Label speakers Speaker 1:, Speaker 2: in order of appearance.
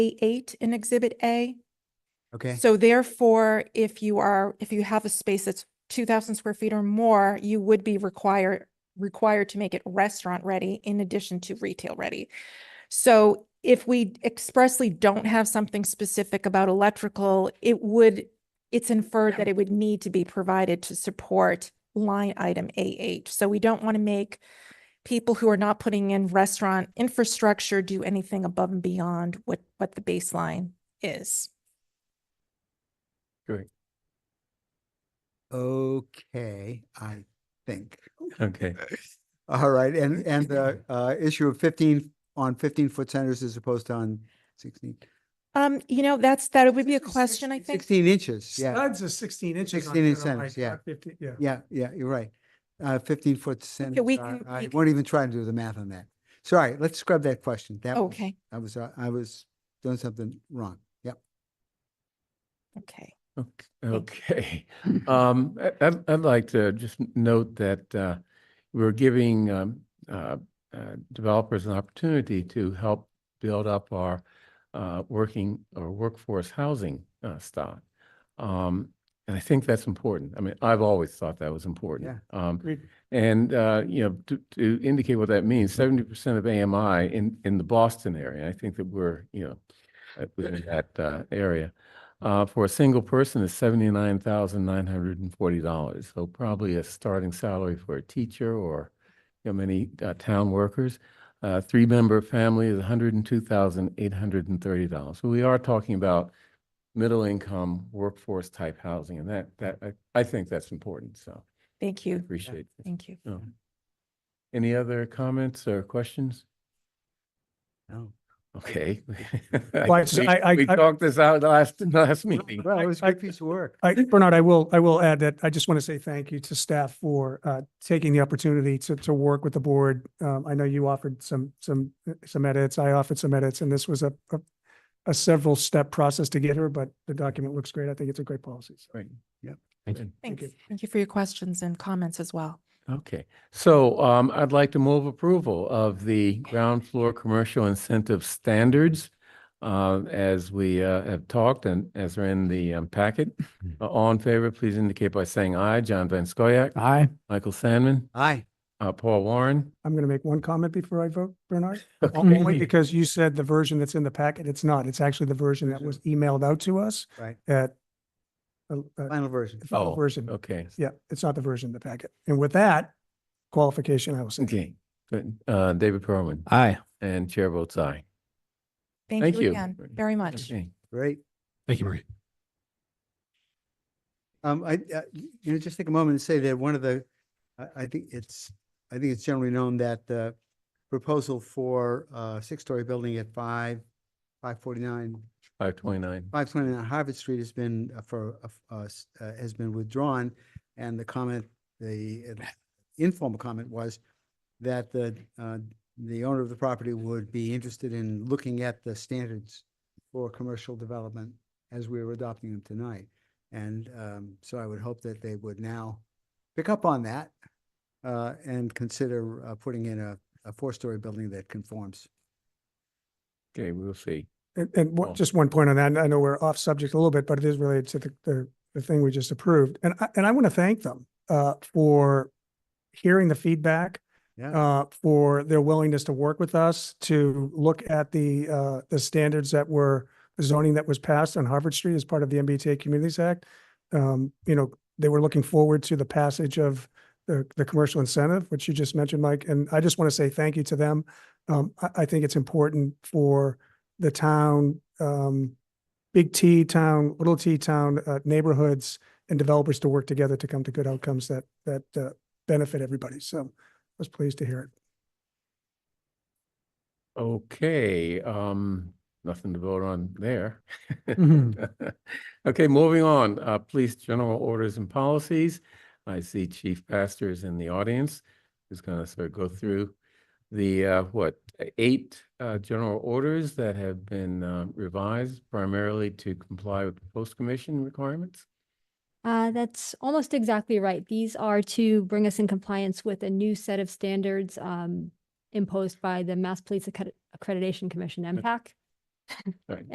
Speaker 1: A8 in Exhibit A.
Speaker 2: Okay,
Speaker 1: So therefore, if you are, if you have a space that's two thousand square feet or more, you would be required, required to make it restaurant ready in addition to retail ready. So if we expressly don't have something specific about electrical, it would, it's inferred that it would need to be provided to support line item A eight. So we don't want to make people who are not putting in restaurant infrastructure do anything above and beyond what, what the baseline is.
Speaker 2: okay, I think.
Speaker 3: Okay,
Speaker 2: All right, and, and the uh, issue of fifteen, on fifteen-foot centers as opposed to on sixteen.
Speaker 1: Um, you know, that's, that would be a
Speaker 4: Sixteen-
Speaker 1: question, I think.
Speaker 2: Sixteen inches, yeah,
Speaker 4: Studs are sixteen inches. on
Speaker 2: 16 inch
Speaker 4: here, I'm like,
Speaker 2: centers, yeah.
Speaker 4: not 15 Yeah.
Speaker 2: yeah, yeah, you're right. Uh, fifteen-foot centers.
Speaker 1: we
Speaker 2: are-
Speaker 1: can- we
Speaker 2: I
Speaker 1: can-
Speaker 2: won't even try to do the math on that. Sorry, let's scrub that question. That was-
Speaker 1: Okay,
Speaker 2: I was, uh, I was doing something wrong. Yep.
Speaker 1: okay.
Speaker 3: ok- okay. Um, I- I'd, I'd like to just n- note that, uh, we're giving, um, uh, uh, developers an opportunity to help build up our, uh, working or workforce housing, uh, stock. Um, and I think that's important. I mean, I've always thought that was important. Um,
Speaker 4: Agreed.
Speaker 3: and, uh, you know, to, to indicate what that means, seventy percent of AMI in, in the Boston area, I think that we're, you know, uh, within that, uh, area. uh, for a single person is seventy-nine thousand nine hundred and forty dollars. So probably a starting salary for a teacher or, you know, many uh, town workers. Uh, three-member family is one hundred and two thousand eight hundred and thirty dollars. So we are talking about middle-income workforce-type housing, and that that I, I think that's important. So
Speaker 1: Thank
Speaker 3: I
Speaker 1: you.
Speaker 3: appreciate. it.
Speaker 1: Thank you.
Speaker 3: Yeah. Any other comments or questions?
Speaker 2: No.
Speaker 3: Okay.
Speaker 4: Well, it's-
Speaker 3: We-
Speaker 4: I- I-
Speaker 3: We
Speaker 4: I-
Speaker 3: talked this out last last meeting.
Speaker 2: Well, it was a
Speaker 4: I-
Speaker 2: good piece of work.
Speaker 4: I, Bernard, I will, I will add that I just want to say thank you to staff for uh, taking the opportunity to, to work with the board. Um, I know you offered some, some, uh, some edits. I offered some edits and this was a, a- a several step process to get here, but the document looks great. I think it's a great policy. so.
Speaker 3: Right.
Speaker 2: Yep.
Speaker 3: Thank you.
Speaker 4: Thank
Speaker 1: Thanks.
Speaker 4: you.
Speaker 1: Thank you for your questions and comments as well.
Speaker 3: Okay, so um, I'd like to move approval of the ground floor commercial incentive standards uh, as we uh, have talked and as are in the um, packet.
Speaker 4: Hmm.
Speaker 3: Uh, All in favor, please indicate by saying aye. John Van Scoyac. Aye. Michael Sandman,
Speaker 2: Aye.
Speaker 3: uh, Paul Warren.
Speaker 4: I'm going to make one comment before I vote, Bernard. Only
Speaker 3: Okay.
Speaker 4: because you said the version that's in the packet, it's not. It's actually the version that was emailed out to us
Speaker 2: Right,
Speaker 4: at uh, uh,
Speaker 2: final version.
Speaker 4: the final
Speaker 3: Oh,
Speaker 4: version.
Speaker 3: Okay,
Speaker 4: Yeah, it's not the version of the packet. And with that qualification, I will say.
Speaker 3: okay. Good. Uh, David Perlman
Speaker 5: Aye.
Speaker 3: and Chair votes aye.
Speaker 1: Thank
Speaker 3: Thank
Speaker 1: you
Speaker 3: you.
Speaker 1: again very much.
Speaker 3: Okay.
Speaker 2: Great.
Speaker 5: Thank you, Marie.
Speaker 2: Um, I, uh, y- you know, just take a moment and say that one of the, I, I think it's, I think it's generally known that the proposal for a six-story building at five, five forty-nine,
Speaker 3: 529.
Speaker 2: five twenty-nine Harvard Street has been uh, for, uh, f- uh, s- uh, has been withdrawn. And the comment, the uh, informal comment was that the, uh, the owner of the property would be interested in looking at the standards for commercial development as we were adopting them tonight. And um, so I would hope that they would now pick up on that uh, and consider uh, putting in a, a four-story building that conforms.
Speaker 3: Okay, we'll see.
Speaker 4: And, and
Speaker 3: Oh.
Speaker 4: what, just one point on that, and I know we're off subject a little bit, but it is related to the, the, the thing we just approved. And I, and I want to thank them, uh, for hearing the feedback,
Speaker 2: Yeah,
Speaker 4: uh, for their willingness to work with us, to look at the, uh, the standards that were, the zoning that was passed on Harvard Street as part of the MBTA Communities Act. Um, you know, they were looking forward to the passage of the, the commercial incentive, which you just mentioned, Mike, and I just want to say thank you to them. Um, I, I think it's important for the town, um, big T town, little T town, uh, neighborhoods and developers to work together to come to good outcomes that, that, uh, benefit everybody. So was pleased to hear it.
Speaker 3: Okay, um, nothing to vote on there. Okay, moving on, uh, police general orders and policies. I see Chief Pastor is in the audience, who's gonna sort of go through the, uh, what, eight, uh, general orders that have been, uh, revised primarily to comply with the post commission requirements.
Speaker 6: Uh, that's almost exactly right. These are to bring us in compliance with a new set of standards um, imposed by the Mass Police Accred- Accreditation Commission, MPAC.
Speaker 3: Right.